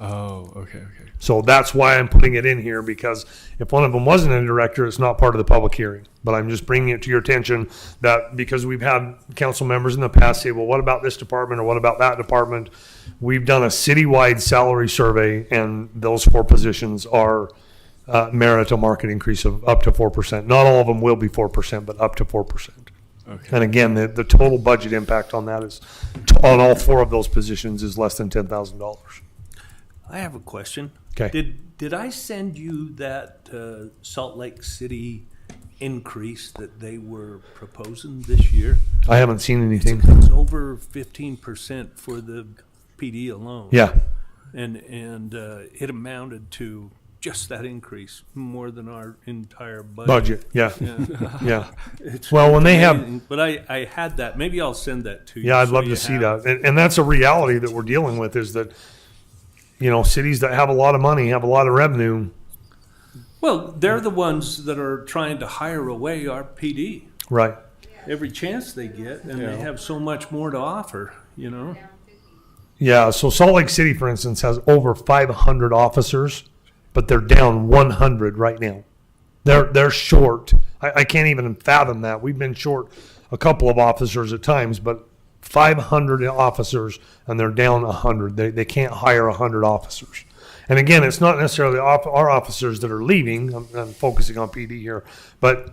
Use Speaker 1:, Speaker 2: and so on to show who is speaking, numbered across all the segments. Speaker 1: Oh, okay, okay.
Speaker 2: So that's why I'm putting it in here because if one of them wasn't a director, it's not part of the public hearing. But I'm just bringing it to your attention that because we've had council members in the past say, well, what about this department or what about that department? We've done a citywide salary survey and those four positions are uh, merit a market increase of up to 4%. Not all of them will be 4%, but up to 4%.
Speaker 1: Okay.
Speaker 2: And again, the, the total budget impact on that is, on all four of those positions is less than $10,000.
Speaker 3: I have a question.
Speaker 2: 'Kay.
Speaker 3: Did, did I send you that uh, Salt Lake City increase that they were proposing this year?
Speaker 2: I haven't seen anything.
Speaker 3: It's over fifteen percent for the PD alone.
Speaker 2: Yeah.
Speaker 3: And, and uh, it amounted to just that increase, more than our entire budget.
Speaker 2: Budget, yeah,
Speaker 3: Yeah.
Speaker 2: yeah.
Speaker 3: It's
Speaker 2: Well, when they have-
Speaker 3: amazing. But I, I had that. Maybe I'll send that to you.
Speaker 2: Yeah, I'd
Speaker 3: so
Speaker 2: love
Speaker 3: you
Speaker 2: to see
Speaker 3: have
Speaker 2: that. And, and that's a reality that we're dealing with is that, you know, cities that have a lot of money, have a lot of revenue.
Speaker 3: Well, they're the ones that are trying to hire away our PD
Speaker 2: Right.
Speaker 3: every chance they get, and they have so much more to offer, you know?
Speaker 2: Yeah, so Salt Lake City, for instance, has over 500 officers, but they're down 100 right now. They're, they're short. I, I can't even fathom that. We've been short a couple of officers at times, but 500 officers and they're down 100. They, they can't hire 100 officers. And again, it's not necessarily off, our officers that are leaving. I'm, I'm focusing on PD here, but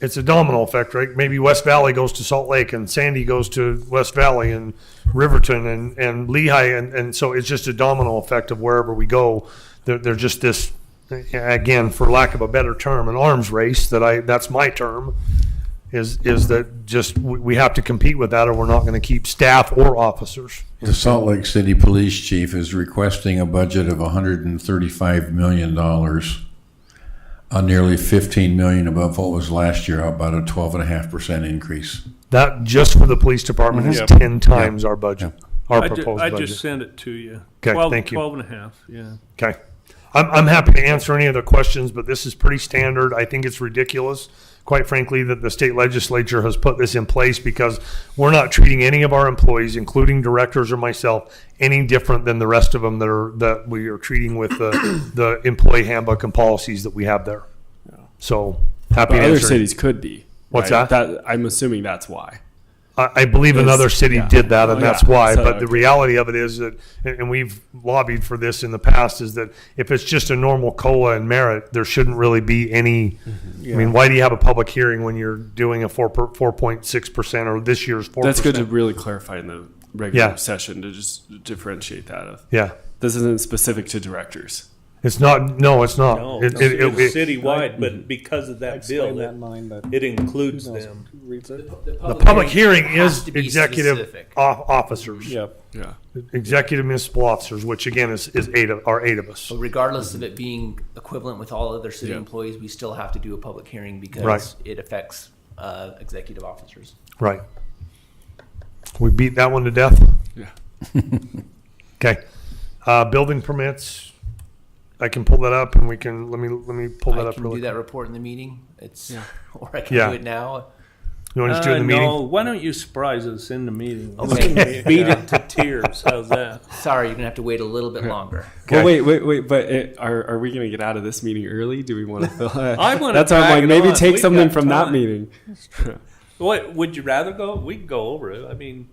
Speaker 2: it's a domino effect, right? Maybe West Valley goes to Salt Lake and Sandy goes to West Valley and Riverton and, and Lehigh. And, and so it's just a domino effect of wherever we go. They're, they're just this, again, for lack of a better term, an arms race that I, that's my term, is, is that just, we, we have to compete with that or we're not going to keep staff or officers.
Speaker 4: The Salt Lake City Police Chief is requesting a budget of $135 million, uh, nearly 15 million above what was last year, about a 12.5% increase.
Speaker 2: That just for the police department is
Speaker 1: Yep.
Speaker 2: 10 times our budget, our
Speaker 3: I ju-
Speaker 2: proposed
Speaker 3: I
Speaker 2: budget.
Speaker 3: just sent it to you.
Speaker 2: 'Kay,
Speaker 3: Twelve-
Speaker 2: thank you.
Speaker 3: Twelve and a half, yeah.
Speaker 2: Okay. I'm, I'm happy to answer any other questions, but this is pretty standard. I think it's ridiculous, quite frankly, that the state legislature has put this in place because we're not treating any of our employees, including directors or myself, any different than the rest of them that are, that we are treating with the, the employee handbook and policies that we have there. So happy
Speaker 5: But
Speaker 2: to
Speaker 5: other
Speaker 2: answer. any-
Speaker 5: cities could be.
Speaker 2: What's that?
Speaker 5: I'm assuming that's why.
Speaker 2: I, I believe another
Speaker 5: It's-
Speaker 2: city
Speaker 5: yeah.
Speaker 2: did that, and
Speaker 5: Oh,
Speaker 2: that's
Speaker 5: yeah.
Speaker 2: why.
Speaker 5: So,
Speaker 2: but the
Speaker 5: okay.
Speaker 2: reality of it is that, and and we've lobbied for this in the past, is that if it's just a normal cola and merit, there shouldn't really be any.
Speaker 5: Mm-hmm.
Speaker 2: I mean, why do you have a public hearing when you're doing a four four point six percent or this year's four?
Speaker 5: That's good to really clarify in the regular
Speaker 2: Yeah.
Speaker 5: session to just differentiate that. Of
Speaker 2: Yeah,
Speaker 5: this isn't specific to directors.
Speaker 2: it's not. No, it's not.
Speaker 3: No,
Speaker 2: It- it- it-
Speaker 3: Oh, it's
Speaker 2: it-
Speaker 3: citywide, but because of that bill,
Speaker 6: Explain that
Speaker 3: it-
Speaker 6: line, but
Speaker 3: it includes them.
Speaker 6: reads it.
Speaker 2: the public hearing
Speaker 7: has
Speaker 2: is
Speaker 7: to be
Speaker 2: executive
Speaker 7: specific.
Speaker 2: off- officers,
Speaker 6: Yep.
Speaker 5: Yeah.
Speaker 2: executive municipal officers, which again is, is eight of are eight of us.
Speaker 7: So regardless of it being equivalent with all other city
Speaker 5: Yeah.
Speaker 7: employees, we still have to do a public hearing because
Speaker 2: Right.
Speaker 7: it affects uh, executive officers.
Speaker 2: Right. We beat that one to death?
Speaker 5: Yeah.
Speaker 2: Okay. Uh, building permits, I can pull that up and we can, let me, let me pull that
Speaker 7: I
Speaker 2: up
Speaker 7: can do
Speaker 2: really.
Speaker 7: that report in the meeting. It's or I can
Speaker 2: Yeah.
Speaker 7: do it now.
Speaker 2: You want to just do it
Speaker 3: Uh,
Speaker 2: in the meeting?
Speaker 3: No, why don't you surprise us in the meeting?
Speaker 7: Okay.
Speaker 3: Beat it to tears, how's that?
Speaker 7: Sorry, you're gonna have to wait a little bit longer.
Speaker 5: Well, wait, wait, wait. But it, are are we going to get out of this meeting early? Do we want to?
Speaker 3: I wanna
Speaker 5: That's why I'm
Speaker 3: drag
Speaker 5: like
Speaker 3: it
Speaker 5: maybe
Speaker 3: on.
Speaker 5: take
Speaker 3: We've
Speaker 5: something
Speaker 3: got
Speaker 5: from
Speaker 3: time.
Speaker 5: that meeting.
Speaker 3: What, would you rather go? We can go over it, I mean,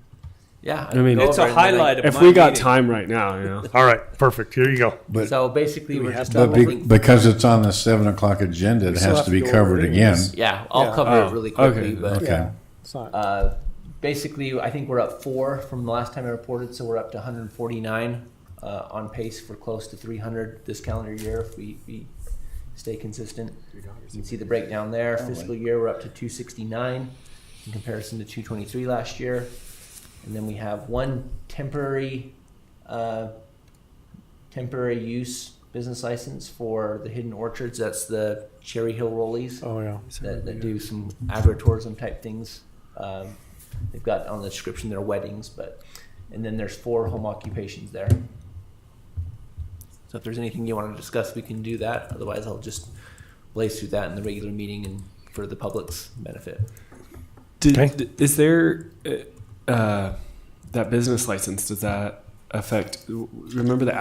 Speaker 7: Yeah,
Speaker 5: I mean-
Speaker 7: go
Speaker 3: it's a
Speaker 7: over it and then I-
Speaker 3: highlight of my
Speaker 5: if we got
Speaker 3: meeting.
Speaker 5: time right now, you know.
Speaker 2: All right, perfect. Here you go.
Speaker 4: But,
Speaker 7: So basically, we're just
Speaker 4: but be-
Speaker 7: looking.
Speaker 4: because it's on the 7 o'clock agenda, it
Speaker 6: still
Speaker 4: has
Speaker 6: have
Speaker 4: to
Speaker 6: to
Speaker 4: be
Speaker 6: go
Speaker 4: covered
Speaker 6: over it
Speaker 4: again.
Speaker 6: anyways.
Speaker 7: Yeah, I'll
Speaker 6: Yeah.
Speaker 7: cover
Speaker 5: Oh,
Speaker 7: it really quickly,
Speaker 5: okay.
Speaker 7: but
Speaker 4: Okay.
Speaker 6: It's not.
Speaker 7: Uh, basically, I think we're up four from the last time I reported, so we're up to 149 uh, on pace for close to 300 this calendar year if we, we stay consistent. You can see the breakdown there. Fiscal year, we're up to 269 in comparison to 223 last year. And then we have one temporary uh, temporary use business license for the Hidden Orchards. That's the Cherry Hill Rollies
Speaker 6: Oh, yeah.
Speaker 7: that, that do some agritourism type things. Um, they've got on the description their weddings, but and then there's four home occupations there. So if there's anything you want to discuss, we can do that. Otherwise, I'll just blaze through that in the regular meeting and for the public's benefit.
Speaker 5: Did,
Speaker 2: Okay.
Speaker 5: d- Is there uh, uh, that business license? Does that affect? Remember the